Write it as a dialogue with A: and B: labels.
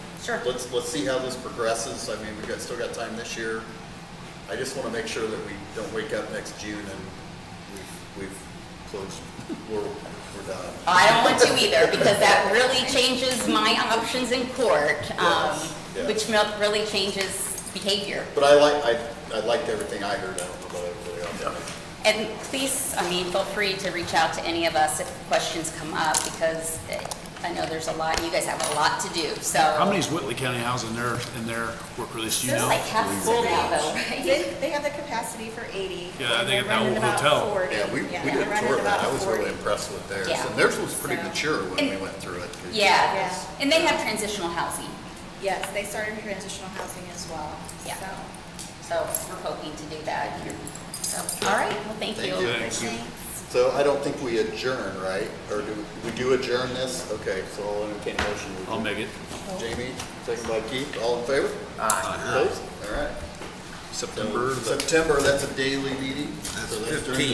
A: Sure.
B: Let's, let's see how this progresses. I mean, we've got, still got time this year. I just want to make sure that we don't wake up next June and we've, we've closed, we're, we're done.
A: I don't want to either, because that really changes my options in court, um,
B: Yes, yeah.
A: which mel- really changes behavior.
B: But I like, I, I liked everything I heard. I don't know about everybody else.
A: And please, I mean, feel free to reach out to any of us if questions come up, because eh, I know there's a lot, you guys have a lot to do, so.
C: How many is Whitley County housing in their, in their work release, you
A: There's
C: know?
A: like half full now, though, right?
D: They, they have the capacity for eighty.
C: Yeah, I think at
D: and they're
C: that
D: running
C: old
D: about
C: hotel.
D: 40.
B: Yeah, we, we
D: Yeah,
B: did
D: they're
B: a
D: running
B: tour of that.
D: about
B: I was
D: 40.
B: really impressed with theirs.
A: Yeah.
B: And theirs was pretty
D: So-
B: mature when we
A: And-
B: went through it. 'cause-
A: Yeah,
D: Yes.
A: and they have transitional housing,
D: Yes, they started transitional housing as well,
A: Yeah.
D: so.
A: so we're hoping to do that. So, all right, well, thank
B: Thank
A: you.
B: you.
C: Thank
D: Thanks.
B: So I don't think we adjourn, right? Or do, we- we do adjourn this? Okay, so I'll entertain a motion.
C: I'll make it,
B: Jamie, second by Keith, all in favor? Aye. Opposed? All right. So
C: Uh-huh. September the
B: September, that's a daily meeting. so That's
E: 15.